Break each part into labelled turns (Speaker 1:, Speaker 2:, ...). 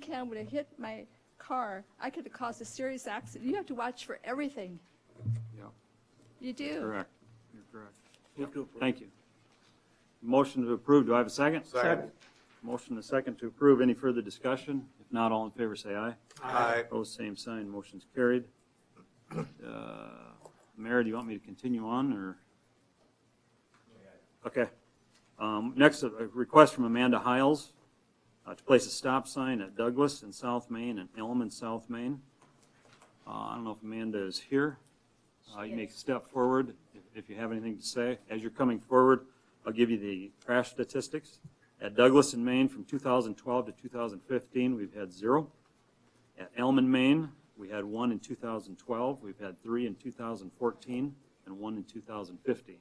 Speaker 1: can, when it hit my car, I could have caused a serious accident. You have to watch for everything.
Speaker 2: Yeah,
Speaker 1: You do.
Speaker 2: correct. You're correct. Thank you. Motion to approve. Do I have a second?
Speaker 3: Second.
Speaker 2: Motion and a second to approve. Any further discussion? If not, all in favor, say aye.
Speaker 3: Aye.
Speaker 2: Opposed, same sign. Motion's carried. Uh, Mayor, do you want me to continue on, or? Okay. Um, Next, a a request from Amanda Hiles uh, to place a stop sign at Douglas in South Main and Elm in South Main. Uh, I don't know if Amanda is here. Uh, You may step forward if- if you have anything to say. As you're coming forward, I'll give you the crash statistics. At Douglas in Maine, from 2012 to 2015, we've had zero. At Elm in Maine, we had one in 2012, we've had three in 2014, and one in 2015.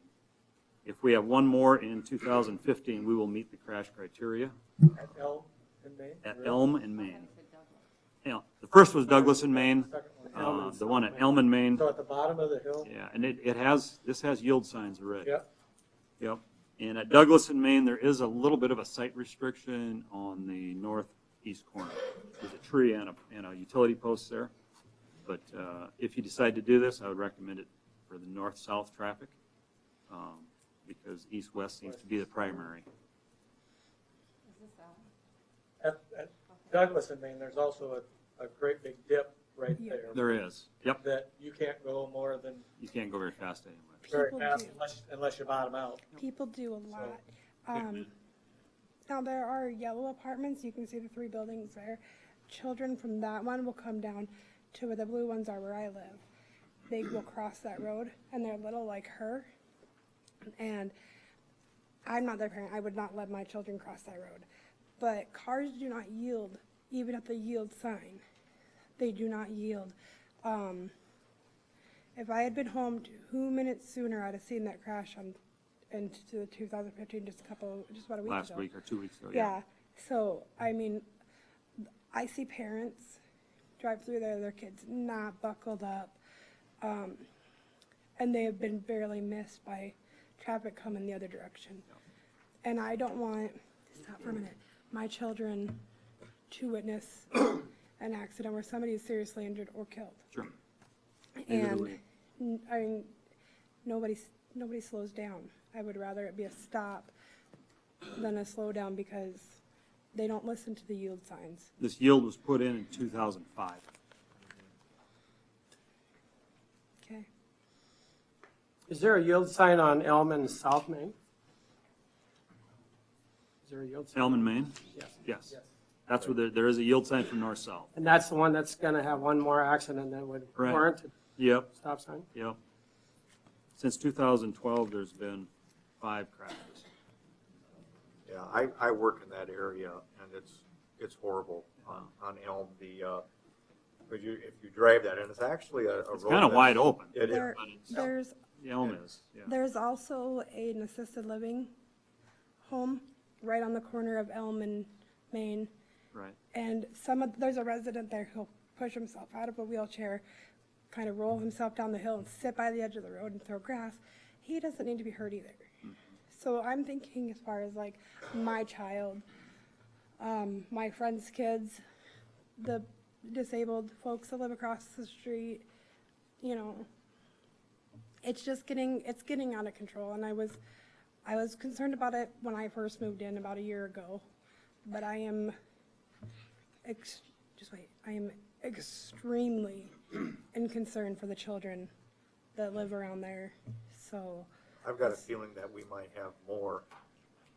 Speaker 2: If we have one more in 2015, we will meet the crash criteria
Speaker 3: At Elm in Maine?
Speaker 2: at Elm in Maine. Yeah, the first was Douglas in Maine,
Speaker 3: Second one, Elm
Speaker 2: uh,
Speaker 3: in
Speaker 2: the one at
Speaker 3: Maine.
Speaker 2: Elm in Maine,
Speaker 3: So at the bottom of the hill?
Speaker 2: yeah, and it, it has, this has yield signs already.
Speaker 3: Yep.
Speaker 2: Yep. And at Douglas in Maine, there is a little bit of a site restriction on the northeast corner. There's a tree and a, and a utility post there. But uh, if you decide to do this, I would recommend it for the north-south traffic um, because east-west seems to be the primary.
Speaker 3: At, at Douglas in Maine, there's also a, a great big dip right
Speaker 4: Yeah.
Speaker 3: there.
Speaker 2: There is. Yep,
Speaker 3: That you can't go more than
Speaker 2: you can't go very fast anyway.
Speaker 3: very
Speaker 4: People
Speaker 3: fast
Speaker 4: do.
Speaker 3: unless, unless you bottom out.
Speaker 4: People do a lot. Um, now there are yellow apartments, you can see the three buildings there. Children from that one will come down to where the blue ones are where I live. They will cross that road and they're little like her. And I'm not their parent, I would not let my children cross that road. But cars do not yield, even at the yield sign. They do not yield. Um, if I had been home two minutes sooner, I'd have seen that crash on, into the 2015, just a couple, just about a week ago.
Speaker 2: Last week or two weeks ago, Oh, yeah.
Speaker 4: Yeah, so, I mean, I see parents drive through there, their kids not buckled up. um, And they have been barely missed by traffic coming the other direction. And I don't want, stop for a minute, my children to witness an accident where somebody is seriously injured or killed.
Speaker 2: Sure. Neither do
Speaker 4: And,
Speaker 2: we.
Speaker 4: n- I mean, nobody, s- nobody slows down. I would rather it be a stop than a slowdown because they don't listen to the yield signs.
Speaker 2: This yield was put in in 2005.
Speaker 4: Okay.
Speaker 5: Is there a yield sign on Elm and South Main? Is there a yield sign?
Speaker 2: Elm in Maine?
Speaker 5: Yes.
Speaker 2: Yes. That's where there, there is a yield sign from north-south.
Speaker 5: And that's the one that's gonna have one more accident that would
Speaker 2: Right.
Speaker 5: warrant a
Speaker 2: Yep.
Speaker 5: stop sign?
Speaker 2: Yep. Since 2012, there's been five crashes.
Speaker 6: Yeah, I, I work in that area and it's, it's horrible on, on Elm, the, uh, but you, if you drive that, and it's actually a, a road.
Speaker 2: It's kind of wide open.
Speaker 6: It is,
Speaker 4: There, there's,
Speaker 2: Elm is, yeah.
Speaker 4: there's also an assisted living home right on the corner of Elm and Main.
Speaker 2: Right,
Speaker 4: And some of, there's a resident there who'll push himself out of a wheelchair, kind of roll himself down the hill and sit by the edge of the road and throw grass. He doesn't need to be hurt either. So I'm thinking as far as like my child, um, my friend's kids, the disabled folks that live across the street, you know. It's just getting, it's getting out of control and I was, I was concerned about it when I first moved in about a year ago. But I am ex- just wait, I am extremely in concern for the children that live around there. So,
Speaker 6: I've got a feeling that we might have more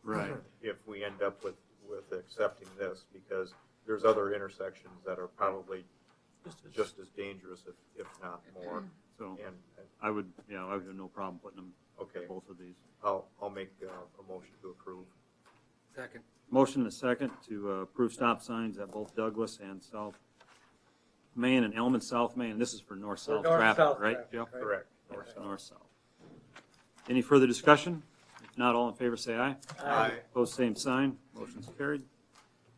Speaker 2: right.
Speaker 6: if we end up with, with accepting this, because there's other intersections that are probably just as dangerous, if, if not more.
Speaker 2: So
Speaker 6: And, and,
Speaker 2: I would, yeah, I would have no problem putting them,
Speaker 6: okay,
Speaker 2: both of these.
Speaker 6: I'll, I'll make uh, a motion to approve.
Speaker 3: Second.
Speaker 2: Motion and a second to uh, approve stop signs at both Douglas and South Main and Elm and South Main. This is for north-south
Speaker 3: For north-south
Speaker 2: traffic, right?
Speaker 3: traffic,
Speaker 2: Yep.
Speaker 3: right.
Speaker 6: Correct.
Speaker 2: North- North-south. Any further discussion? If not, all in favor, say aye.
Speaker 6: Aye.
Speaker 2: Opposed, same sign. Motion's carried.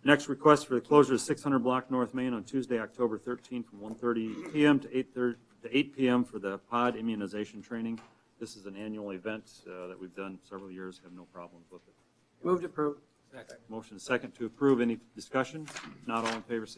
Speaker 2: Next request for the closure of 600 block North Main on Tuesday, October 13, from 1:30 PM to 8:30, to 8 PM for the pod immunization training. This is an annual event uh, that we've done several years, have no problems with it.
Speaker 5: Move to approve.
Speaker 2: Motion second to approve. Any discussion? If Not all in favor, say